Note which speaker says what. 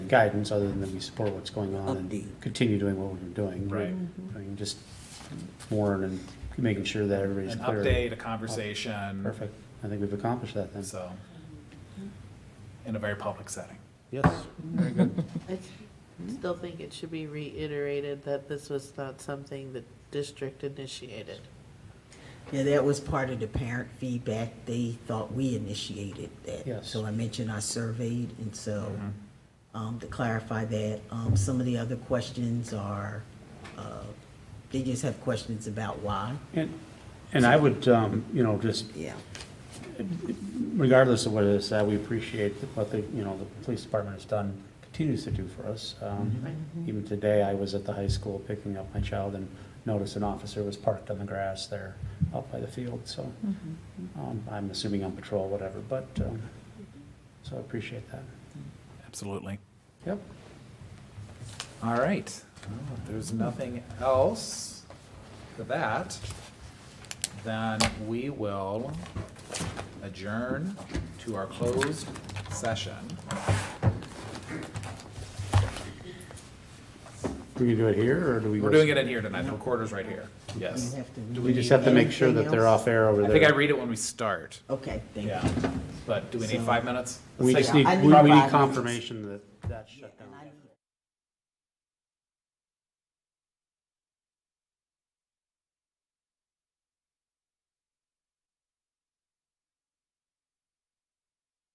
Speaker 1: guidance, other than that we support what's going on and
Speaker 2: Upbeat.
Speaker 1: continue doing what we're doing.
Speaker 3: Right.
Speaker 1: I mean, just warn and making sure that everybody's
Speaker 3: An
Speaker 1: clear.
Speaker 3: update, a conversation.
Speaker 1: Perfect. I think we've accomplished that then.
Speaker 3: So, in a very public setting.
Speaker 1: Yes. Very good.
Speaker 4: I s- still think it should be reiterated that this was not something the district initiated.
Speaker 2: Yeah, that was part of the parent feedback. They thought we initiated that.
Speaker 1: Yes. Mm-hmm.
Speaker 2: So I mentioned I surveyed, and so, um, to clarify that, um, some of the other questions are, uh, they just have questions about why.
Speaker 1: And, and I would, um, you know, just
Speaker 2: Yeah.
Speaker 1: regardless of what it is, uh, we appreciate what the, you know, the police department has done, continues to do for us. Um, Even today, I was at the high school picking up my child and noticed an officer was parked on the grass there out by the field, so, um, I'm assuming on patrol, whatever, but, um, so I appreciate that.
Speaker 3: Absolutely.
Speaker 1: Yep.
Speaker 3: All right. Well, If there's nothing else to that, then we will adjourn to our closed session.
Speaker 1: We can do it here, or do we?
Speaker 3: We're
Speaker 1: go-
Speaker 3: doing it in here tonight. The recorder's right here.
Speaker 2: Mm-hmm.
Speaker 3: Yes.
Speaker 1: Do we just have to make sure that they're off air over
Speaker 3: I
Speaker 1: there?
Speaker 3: think I read it when we start.
Speaker 2: Okay, thank you.
Speaker 3: Yeah. But do we need
Speaker 2: So-
Speaker 3: five minutes? Let's
Speaker 1: We
Speaker 3: take-
Speaker 1: just need,
Speaker 2: I
Speaker 1: we
Speaker 2: need
Speaker 1: we need
Speaker 2: five minutes.
Speaker 1: confirmation that that's shut down.
Speaker 2: And I need